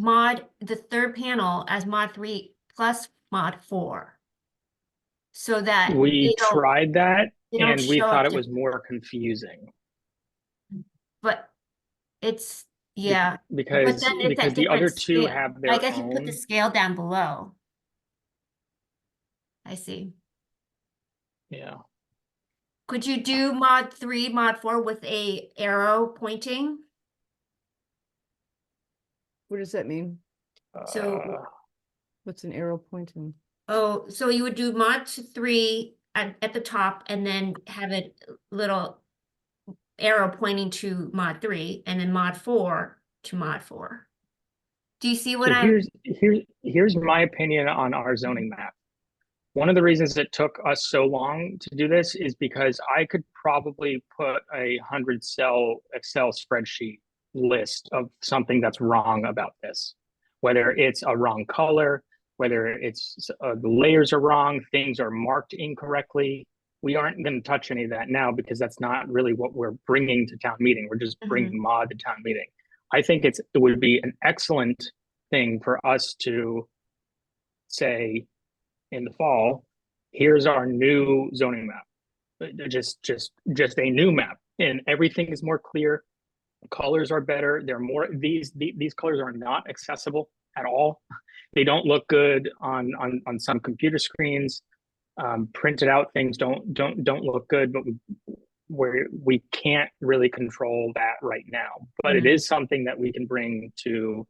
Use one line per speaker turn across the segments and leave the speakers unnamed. mod, the third panel as mod three plus mod four. So that.
We
they don't-
tried that
they don't
and we
show up
thought it
to-
was more confusing.
But it's,
be-
yeah,
Because,
then it's at
because the other
different
two
scale.
have their
I guess you put
own.
the scale down below. I see.
Yeah,
Could you do mod three, mod four with a arrow pointing?
What does that mean?
So-
uh,
What's an arrow pointing?
Oh, so you would do mod t- three at, at the top and then have a little arrow pointing to mod three and then mod four to mod four. Do you see what
So
I'm,
here's here, here's my opinion on our zoning map. One of the reasons it took us so long to do this is because I could probably put a hundred cell Excel spreadsheet list of something that's wrong about this. Whether it's a wrong color, whether it's uh, the layers are wrong, things are marked incorrectly. We aren't going to touch any of that now because that's not really what we're bringing to town meeting. We're just bringing mod to town meeting. I think it's it would be an excellent thing for us to say in the fall, here's our new zoning map. Uh, Just, just, just a new map and everything is more clear. Colors are better. They're more, these, the- these colors are not accessible at all. They don't look good on, on, on some computer screens. Um, printed out things don't, don't, don't look good, but we- we're, we can't really control that right now. But it
Mhm.
is something that we can bring to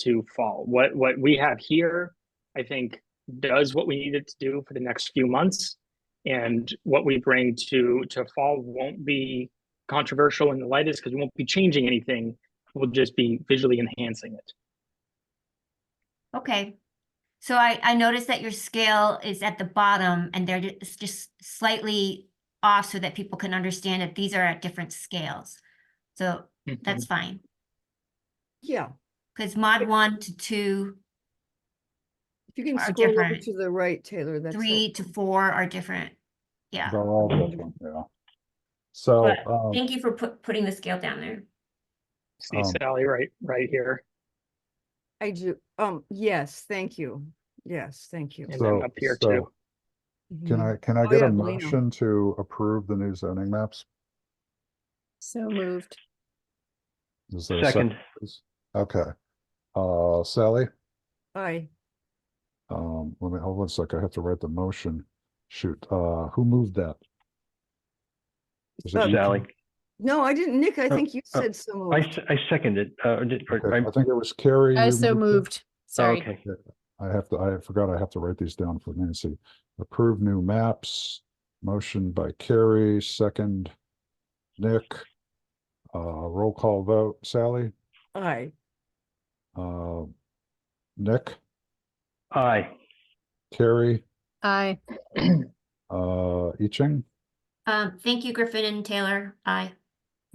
to fall. What what we have here, I think, does what we need it to do for the next few months. And what we bring to to fall won't be controversial in the lightest because we won't be changing anything. We'll just be visually enhancing it.
okay. So I, I noticed that your scale is at the bottom and they're ju- it's just slightly off so that people can understand that these are at different scales. So that's fine,
Yeah,
because mod one to two,
if you can
Are
scroll over
different.
to the right, Taylor, that's.
three to
helpful.
four are different. Yeah,
They're all
Mm-hmm.
different, yeah. So,
But
um,
thank you for put, putting the scale down there.
See
um,
Sally right right here,
I do, um, yes, thank you. Yes, thank you.
and
So-
then up here
so-
too.
can
Mhm.
I, can I
Oh,
get
yeah,
a
Lino.
motion to approve the new zoning maps?
So moved.
Is there a second? please? Okay, uh, Sally,
Aye,
um, let me, hold on a sec, I have to write the motion. Shoot, uh, who moved that? Was it Uh,
Uh,
you,
Sally,
Ken?
no, I didn't, Nick, I
Oh,
think you
oh,
said so.
I,
moved.
s- I second it. uh, or did- or
Okay,
I'm-
I think it was Carrie.
I
you
so
it?
moved. Sorry.
Okay,
I have to, I forgot I have to write these down for Nancy. Approve new maps, motion by Carrie, second Nick. Uh, roll call vote, Sally,
Aye,
uh, Nick,
aye,
Carrie,
Aye.
uh, I Ching,
Um, thank you, Griffin and Taylor. Aye.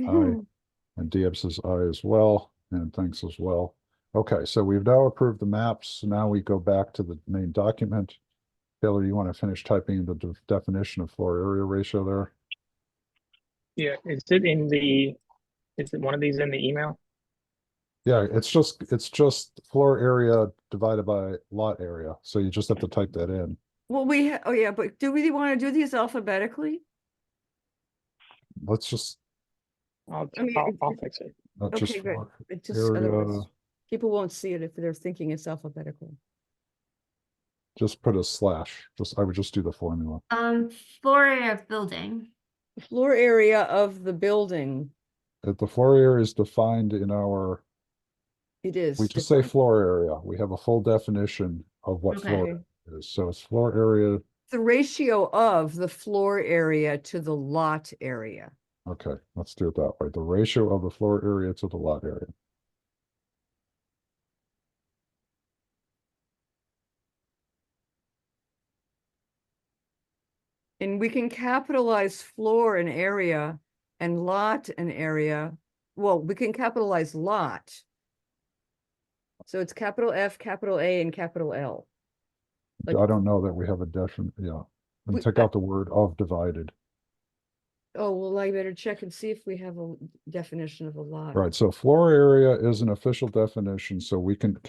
Aye. and Deeb says aye as well, and thanks as well. Okay, so we've now approved the maps. Now we go back to the main document. Taylor, you want to finish typing the de- definition of floor area ratio there?
Yeah, is it in the? Is it one of these in the email?
Yeah, it's just, it's just floor area divided by lot area, so you just have to type that in.
well, we, ha- oh yeah, but do we want to do these alphabetically?
Let's just,
I'll
I mean,
I'll,
it's-
I'll fix it.
let's
Okay,
just,
great.
floor
It just,
area,
otherwise, people won't see it if they're thinking it's alphabetical.
just put a slash, just, I would just do the formula.
Um, floor area of building.
The Floor area of the building,
If Uh, the floor area is defined in our,
it is.
we just say
defined.
floor area, we have a full definition of what floor
Okay.
area is, so it's floor area,
The ratio of the floor area to the lot area.
okay, let's do it that way, the ratio of the floor area to the lot area.
And we can capitalize floor and area and lot and area. Well, we can capitalize lot. So it's capital F, capital A, and capital L. Like-
I don't know that we have a defin, yeah, and
We-
take out the word of divided.
Oh, well, I better check and see if we have a definition of a lot.
Right, so floor area is an official definition, so we can